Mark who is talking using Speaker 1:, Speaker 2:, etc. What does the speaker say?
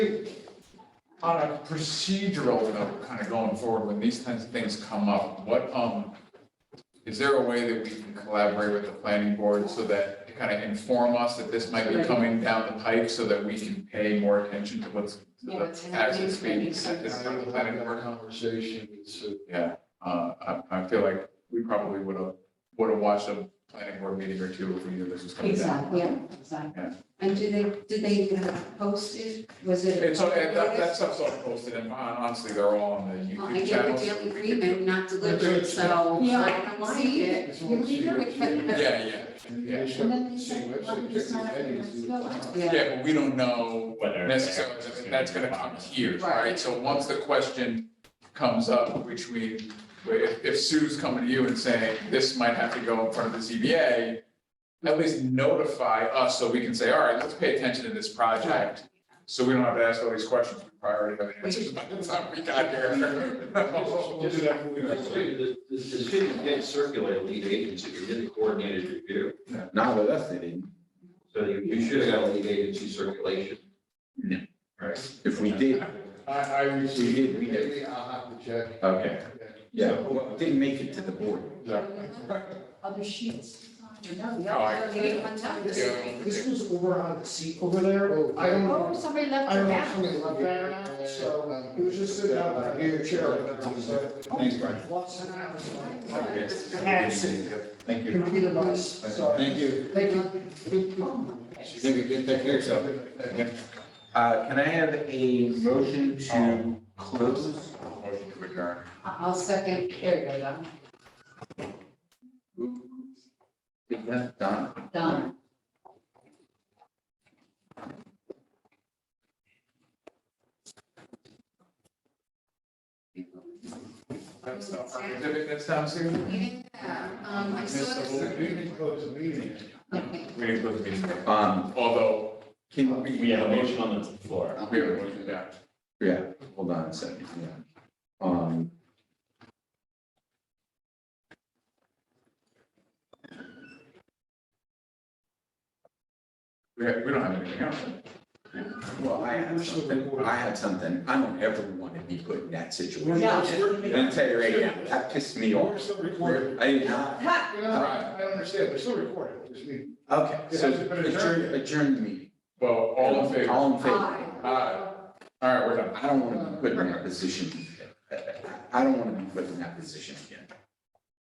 Speaker 1: On a procedural note, kind of going forward, when these kinds of things come up, what, um, is there a way that we can collaborate with the planning board so that to kind of inform us that this might be coming down the pike so that we can pay more attention to what's, to
Speaker 2: Yeah, it's
Speaker 1: the
Speaker 2: in the
Speaker 1: taxes
Speaker 2: newspaper,
Speaker 1: being
Speaker 2: so
Speaker 1: sent in
Speaker 2: it's-
Speaker 1: front of the planning board?
Speaker 3: Conversation, so
Speaker 1: Yeah, uh, I, I feel like we probably would have, would have watched a planning board meeting or two if we knew this was coming down.
Speaker 2: Exactly, yeah,
Speaker 1: Yeah.
Speaker 2: exactly. And do they, did they uh, post it? Was it?
Speaker 1: It's, on- and that, that stuff's all posted and hon- honestly, they're all on the
Speaker 2: Well, I
Speaker 1: YouTube
Speaker 2: gave a
Speaker 1: channels.
Speaker 2: daily
Speaker 1: We can-
Speaker 2: agreement not delivered, so
Speaker 4: Yeah.
Speaker 2: I don't see it.
Speaker 3: it's on the same website.
Speaker 1: Yeah, yeah, yeah.
Speaker 4: And then they
Speaker 3: Same
Speaker 4: said,
Speaker 3: website,
Speaker 4: well, it's not up
Speaker 3: check the
Speaker 4: to us to go
Speaker 3: edits.
Speaker 4: out.
Speaker 2: Yeah,
Speaker 1: Yeah, but we don't know
Speaker 5: Whether.
Speaker 1: necessarily, that that's gonna come here, right?
Speaker 2: Right.
Speaker 1: So once the question comes up, which we, if, if Sue's coming to you and saying, this might have to go in front of the ZBA, at least notify us so we can say, all right, let's pay attention to this project. So we don't have to ask all these questions, we probably already have the answers by the time we got
Speaker 3: We'll do
Speaker 1: here.
Speaker 3: that when we-
Speaker 6: The, the, the student did circulate a lead agency, they did a coordinated review,
Speaker 5: Not with us, they didn't.
Speaker 6: so you, you should have got a lead agency circulation.
Speaker 5: Yeah.
Speaker 6: Right.
Speaker 5: If we did,
Speaker 3: I, I received.
Speaker 5: We did, we did.
Speaker 3: Maybe I'll have to check.
Speaker 5: okay, yeah, well, it didn't make it to the board.
Speaker 3: Yeah.
Speaker 4: Other sheets. No, the
Speaker 1: Oh, I-
Speaker 4: other-
Speaker 2: they didn't want to.
Speaker 1: Yeah.
Speaker 7: This was over on the seat over there.
Speaker 3: Oh.
Speaker 7: I don't
Speaker 4: Oh,
Speaker 7: know.
Speaker 4: somebody left
Speaker 7: I
Speaker 4: their
Speaker 7: don't know
Speaker 4: hat.
Speaker 7: if somebody left that or not, so um, it was just sitting out like here, chair.
Speaker 5: Thanks, Brian.
Speaker 7: Lots of hours.
Speaker 5: Okay.
Speaker 7: Hands.
Speaker 5: Thank you.
Speaker 7: Computer device, sorry.
Speaker 5: Thank you.
Speaker 7: Thank you.
Speaker 4: Oh,
Speaker 5: Thank you, Take care of yourself. Uh, can I have a motion to close?
Speaker 1: Motion to adjourn.
Speaker 2: I- I'll second, here you go,
Speaker 5: Yeah, Don?
Speaker 2: Don. Don.
Speaker 1: That's not, exhibit that's down soon.
Speaker 2: Yeah, um, I saw
Speaker 1: Missed the
Speaker 2: this.
Speaker 1: whole
Speaker 3: We didn't close the meeting.
Speaker 2: Okay.
Speaker 1: We didn't close the meeting.
Speaker 5: Um,
Speaker 1: Although,
Speaker 5: can we?
Speaker 8: We have a motion on the floor.
Speaker 1: we have a motion, yeah.
Speaker 5: Yeah, hold on a second, yeah. Um.
Speaker 1: We, have- we don't have anything else.
Speaker 5: Well, I had something, I had something, I don't ever want to be put in that situation.
Speaker 4: Yeah.
Speaker 5: I'm gonna tell you right now, that pissed me
Speaker 3: We're
Speaker 5: off.
Speaker 3: still recording.
Speaker 5: I did not,
Speaker 3: You know, I I understand, we're still recording this meeting.
Speaker 5: okay, so
Speaker 3: It hasn't been adjourned
Speaker 5: adjourn,
Speaker 3: yet.
Speaker 5: adjourn the meeting.
Speaker 1: Well, all in favor?
Speaker 5: All in favor.
Speaker 2: Aye.
Speaker 1: Aye. All right, we're done.
Speaker 5: I don't want to be put in that position. I don't want to be put in that position again.